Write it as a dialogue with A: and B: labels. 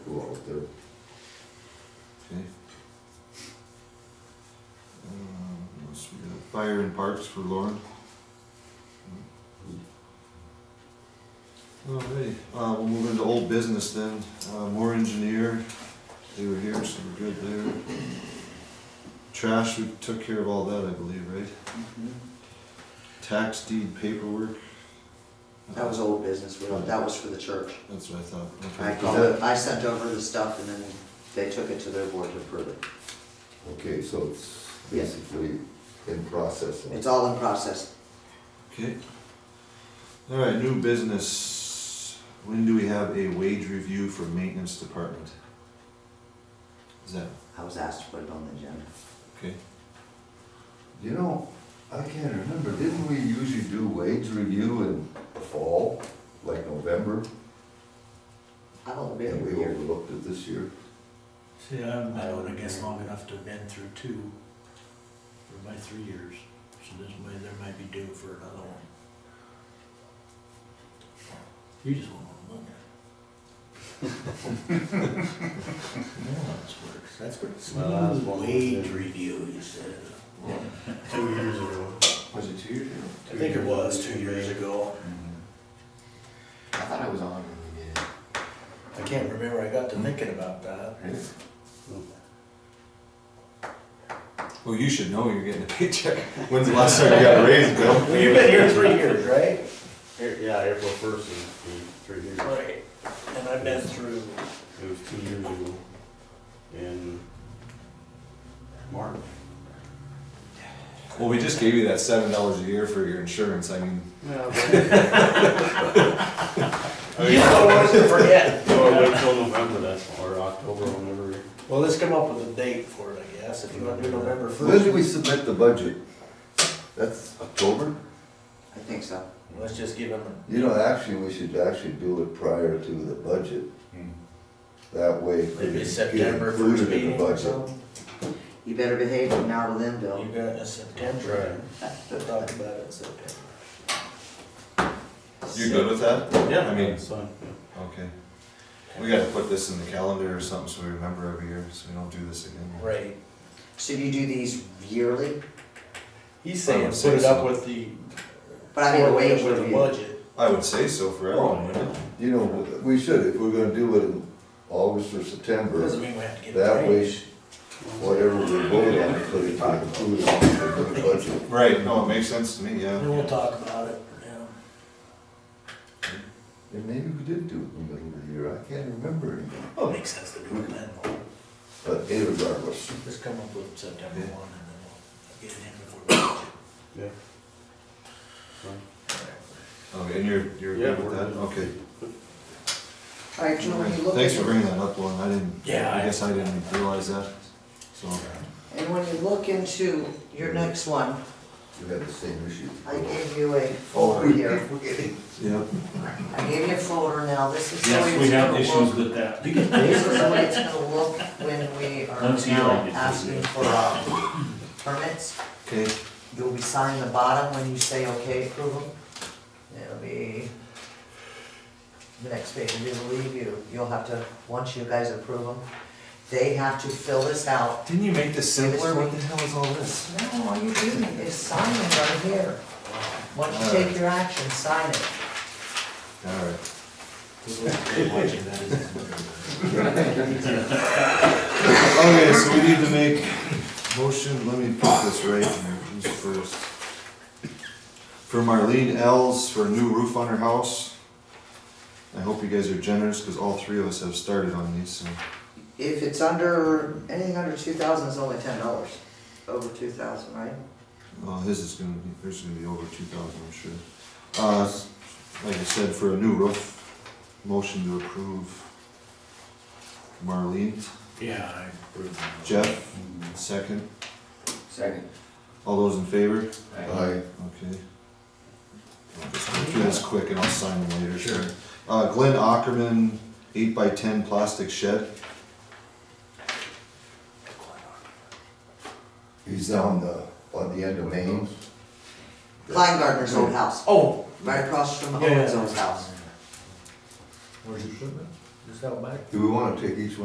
A: go out there.
B: Okay. Um, what else we got? Fire and parks for Lauren. Alrighty, uh, we'll move into old business then, uh, more engineer, they were here, so we're good there. Trash, we took care of all that, I believe, right? Tax deed paperwork.
C: That was old business, we don't- that was for the church.
B: That's what I thought,
C: I
B: okay.
C: called, it- I sent over the stuff and then they took it to their board to approve it.
A: Okay, so it's
C: Yeah.
A: basically in process.
C: It's all in process.
B: Okay. All right, new business. When do we have a wage review for maintenance department? Is that,
C: I was asked to put it on the agenda.
B: okay?
A: You know, I can't remember, didn't we usually do wage review in the fall, like November?
C: I don't think
A: And
C: we
A: we
C: were here.
A: overlooked it this year.
D: See, I've been on, I guess, long enough to have been through two, or by three years, so this way there might be due for another one. You just won't wanna look at it. Yeah, that's worse, that's worse.
E: Well, that was one of the
D: Wage
E: things.
D: review, you said.
E: Two years ago.
F: Was it two years ago?
D: I think it was two years ago.
F: Mm-hmm. I thought I was on when we did it.
D: I can't remember, I got to thinking about that.
B: Well, you should know you're getting a paycheck. When's the last time you got a raise, Bill?
D: Well, you've been here three years, right?
E: Here- Yeah, April first is the three years.
D: Right, and I've been through,
E: It was two years ago in March.
B: Well, we just gave you that seven dollars a year for your insurance. I mean,
D: you know, what to forget.
E: So I Oh, wait till November, that's, or October, whenever.
D: Well, let's come up with a date for it, I guess, if you want to do November
A: When
D: first.
A: did we submit the budget? That's October?
C: I think so.
D: Let's just give them, a-
A: You know, actually, we should actually do it prior to the budget. That way. it
D: maybe
A: can
D: September
A: get included
D: first
A: in the
D: meeting or
A: budget.
D: something.
C: You better behave from now to then,
D: You
C: Bill.
D: got it in September, we'll talk about it in September.
B: you good with that?
E: Yeah,
B: I mean-
E: that's fine, yeah.
B: Okay. We gotta put this in the calendar or something so we remember every year, so we don't do this again.
D: Right,
C: So do you do these yearly?
D: he's
B: I
D: saying
B: would
D: put
B: say
D: it up
B: so.
D: with the.
C: But I mean, the wage
D: With the
C: review.
D: budget,
B: I would say so for
E: Oh,
B: everyone, wouldn't it?
A: You know, we should, if we're gonna do it in August or September,
D: doesn't mean we have to get it
A: that
D: right.
A: way, whatever we vote on, it's gonna be included in the budget.
B: Right, no, it makes sense to me,
D: Then
B: yeah.
D: we'll talk about it, yeah.
A: And maybe we did do it in the middle of the year, I can't remember anymore,
D: Well, Oh, it makes sense to do it then,
A: but irregardless,
D: let's come up with September one and
B: Yeah.
D: then we'll get it in before budget.
E: Yeah. Fine.
B: Okay, and you're, you're
E: Yeah,
B: good with
E: we're
B: that?
E: good.
B: Okay.
C: All right, Joe, when you look at.
B: Thanks for bringing that up, Lauren, I didn't,
D: Yeah,
B: I
D: I-
B: guess I didn't realize that, so.
C: And when you look into your next one,
A: you had the same issue. Oh,
C: I gave you a folder here.
B: Yep.
C: I gave you a folder now, this is. the way
G: Yes, we
C: it's
G: have
C: gonna
G: issues
C: look.
G: with that.
C: This is the way it's gonna look when we are
G: That's
C: now
G: your idea.
C: asking for, uh, permits.
B: Okay,
C: You'll be signing the bottom when you say okay, approve them. It'll be the next page, we believe you, you'll have to, once you guys approve them, they have to fill this out.
B: didn't you make this
C: simpler? What
B: the hell is all this?
C: No, all you do is sign it right here. Once you take your action, sign it.
B: Alright,
D: Watching that is-
B: okay, Oh, so we need to make motion, let me put this right here, who's first? For Marlene Els for a new roof on her house. I hope you guys are generous, cause all three of us have started on these, so.
C: If it's under, anything under two thousand is only ten dollars. Over two thousand, right?
B: Well, his is gonna be, hers is gonna be over two thousand, I'm sure. Uh, s- like I said, for a new roof, motion to approve. Marlene,
D: Yeah, I approve. that.
B: Jeff, second,
F: Second.
B: all those in favor?
A: I,
B: Okay. I'll just go through this quick and I'll sign them later. Sure. Uh, Glenn Ackerman, eight by ten plastic shed,
A: he's down the, on the end of Maine.
C: Kleingartner's old house,
D: Oh,
C: right across from
D: Yeah, yeah.
C: Owen's old house.
D: Where's your shipment? Just out back.
A: Do we wanna take each one